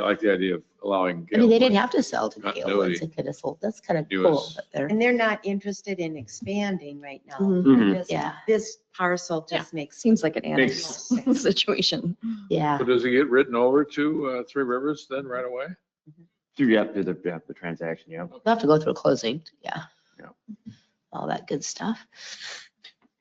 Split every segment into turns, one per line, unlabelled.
I like the idea of allowing.
I mean,
Gale
they didn't
Point.
have to sell to Gale
Continuity.
Woods. It could have sold. That's kind of
It
cool,
was-
but they're.
And they're not interested in expanding right now.
Mhm.
Mm.
Mhm.
This-
Yeah.
This parcel just makes.
Seems like an annex
Makes-
situation.
Yeah,
So does it get written over to uh, Three Rivers then right away?
Through, yeah, through the, yeah, the transaction, yeah.
they'll have to go through closing, yeah.
Yeah.
All that good stuff.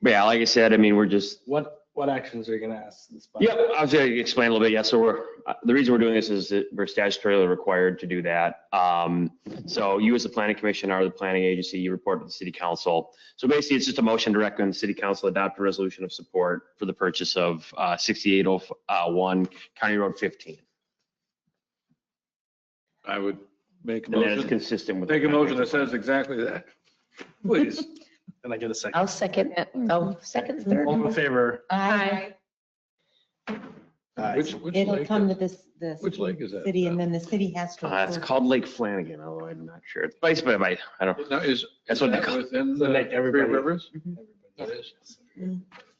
But yeah, like I said, I mean, we're just,
What, what actions are you gonna ask this? body?
yeah, I was gonna explain a little bit. Yeah, so we're, uh, the reason we're doing this is that we're statutorily required to do that. Um, so you as the planning commission are the planning agency, you report to the city council. So basically, it's just a motion to recommend the city council adopt a resolution of support for the purchase of, uh, sixty-eight oh, uh, one County Road fifteen.
I would make a
And that is
motion.
consistent with.
Take a motion that says exactly that, please.
Can I get a second?
I'll second,
Oh,
oh, second, third.
All in favor?
Hi.
Aye.
Which, which
It'll
lake,
come to
is-
this, this
which lake is that?
city and then the city has to.
Uh, it's
approve.
called Lake Flanagan, although I'm not sure. It's based by, by, I don't,
Now, is, is
That's what they
that
call-
within
So
the
like
Three
everybody-
Rivers? That
Everybody.
is.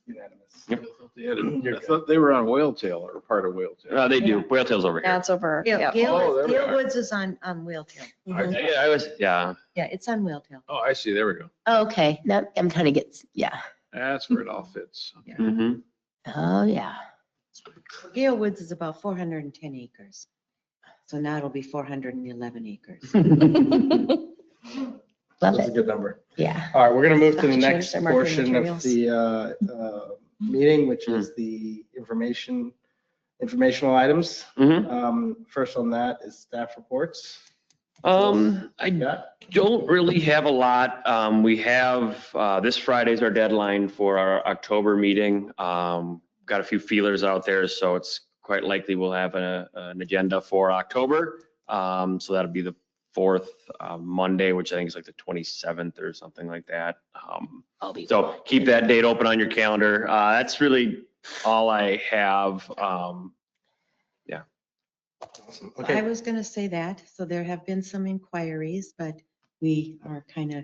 Unanimous.
I thought they had it-
You're
I thought they were on Whale Tail or part of Whale Tail.
no, uh, they do. Whale Tail's over here.
That's over.
Gale,
Yeah.
Oh, there
Gale
we
Gale
are.
Woods is on, on Wheeltail.
I- Yeah, I was, yeah.
Yeah, it's on Wheeltail.
Oh, I see, there we go.
Oh, Okay, now I'm trying to get, yeah,
That's where it all fits.
Mm-hmm.
oh, yeah.
Gale Woods is about 410 acres. So now it'll be 411 acres.
Mm-hmm.
Love
That's a
it,
good number.
yeah.
All right, we're gonna move to the
Change
next
their marketing
portion of
materials.
the, uh, uh, meeting, which is the information, informational items.
Mhm.
Um, first on that is staff reports.
Um, I
Yeah.
don't really have a lot. Um, we have, uh, this Friday's our deadline for our October meeting. Um, got a few feelers out there, so it's quite likely we'll have a, an agenda for October. Um, so that'll be the fourth, uh, Monday, which I think is like the 27th or something like that. Um,
I'll be-
so keep that date open on your calendar. Uh, that's really all I have. Um,
Awesome.
I
Okay,
was going to say that. So there have been some inquiries, but we are kind of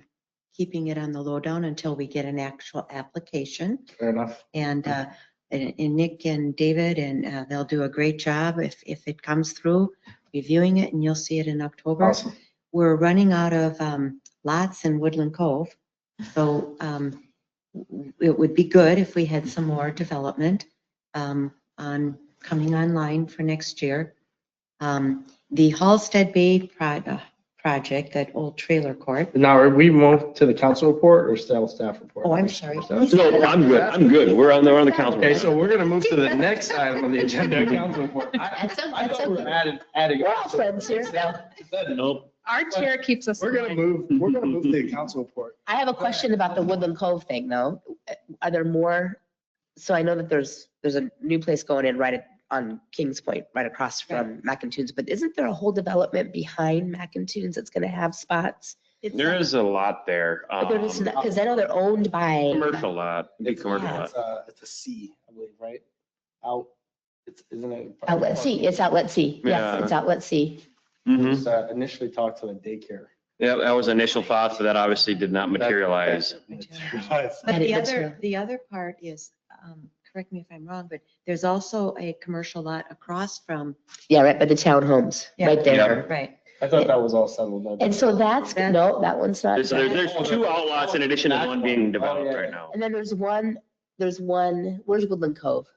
keeping it on the lowdown until we get an actual application.
fair enough.
And, uh, and and Nick and David, and uh, they'll do a great job if, if it comes through, reviewing it, and you'll see it in October.
Awesome.
We're running out of um, lots in Woodland Cove, so um, it would be good if we had some more development um, on, coming online for next year. Um, The Halsted Bay pro- uh, project, that old trailer court,
Now, are we moved to the council report or still staff report?
Oh, I'm sorry.
no, I'm good. I'm good. We're on, we're on the council.
Okay, so we're gonna move to the next item on the agenda, council report. I-
That's, o-
I
that's
thought we were
okay.
adding, adding.
We're all friends here.
Nope.
Our chair keeps us.
We're gonna move, we're gonna move to the council report.
I have a question about the Woodland Cove thing though. Are there more? So I know that there's, there's a new place going in right at- on Kings Point, right across from McIntoons, but isn't there a whole development behind McIntoons that's gonna have spots?
There is a lot there.
But there is
um,
not- Cause I know they're owned by.
Commercial lot, big commercial lot.
It's a, it's a C, I believe, right? Out, it's, isn't it?
Outlet C, it's Outlet C. Yes,
Yeah.
it's Outlet C.
Mhm.
Just, uh, Initially talked to the daycare.
Yeah, that was initial thoughts that obviously did not materialize.
Materialize.
But
That
the
is
other,
true.
the other part is, um, correct me if I'm wrong, but there's also a commercial lot across from.
Yeah, right by the townhomes, right there.
Right.
I thought that was all settled.
And so that's, no, that one's not.
There's, there- there's two outlots in addition to the one being developed right now.
And then there's one, there's one, where's Woodland Cove?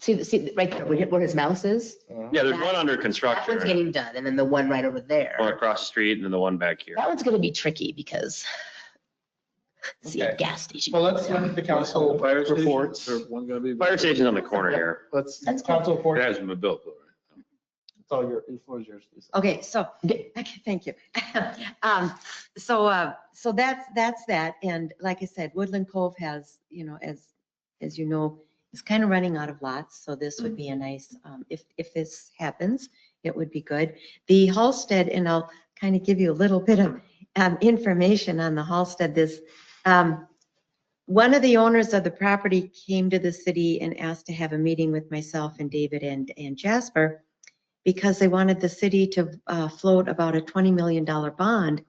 See, the- see, the- right there, where where his mouse is?
Uh,
Yeah, there's one under
That one's
construction,
getting done, and then the one right over
one
there.
across the street and then the one back here.
That one's gonna be tricky because see a
Okay.
gas station.
Well, let's let the council
Fire station,
reports.
or one gonna be-
Fire station's on the corner here.
Let's,
That's good.
council report,
It
it's
hasn't been built though, right?
all your, it's all yours. Lisa.
Okay, so,
Okay.
okay, thank you. Um, so, uh, so that's, that's that. And like I said, Woodland Cove has, you know, as, as you know, is kind of running out of lots. So this would be a nice, um, if, if this happens, it would be good. The Halsted, and I'll kind of give you a little bit of, um, information on the Halsted, this, um, one of the owners of the property came to the city and asked to have a meeting with myself and David and, and Jasper because they wanted the city to uh, float about a $20 million bond.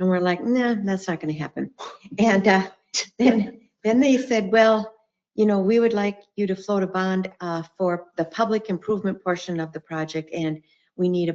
And we're like, nah, that's not going to happen. And uh, then, then they said, well, you know, we would like you to float a bond uh, for the public improvement portion of the project and we need a